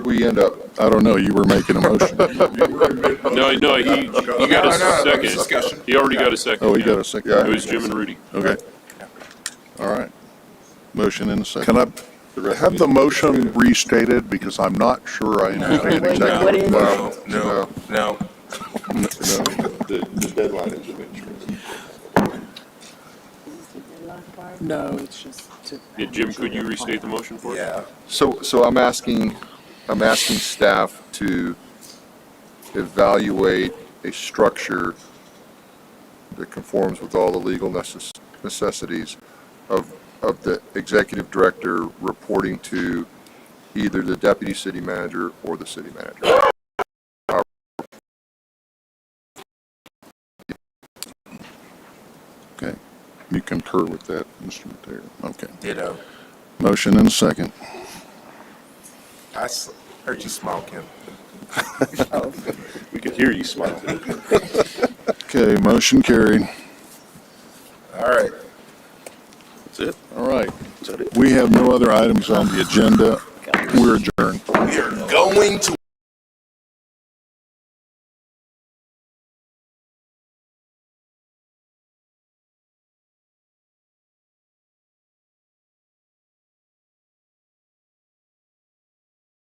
we end up, I don't know, you were making a motion. No, no, he, he got No, no, a no, second. discussion. He already got a second. Oh, we yeah. got a second. It was Jim and Rudy. Okay. All right. Motion and a second. Can I have the motion restated because I'm not sure I understand exactly what is- No, no, no. The, the deadline is eventually. No, it's just to. Yeah, Jim, could you restate the motion for us? So, so I'm asking, I'm asking staff to evaluate a structure that conforms with all the legal necess- necessities of, of the executive director reporting to either the deputy city manager or the city manager. Okay. You concur with that, Mr. Mateo? Okay. Ditto. Motion and a second. I s- heard you smile, Kim. We could hear you smile. Okay, motion carried. All right. All right. We have no other items on the agenda. We're adjourned. We are going to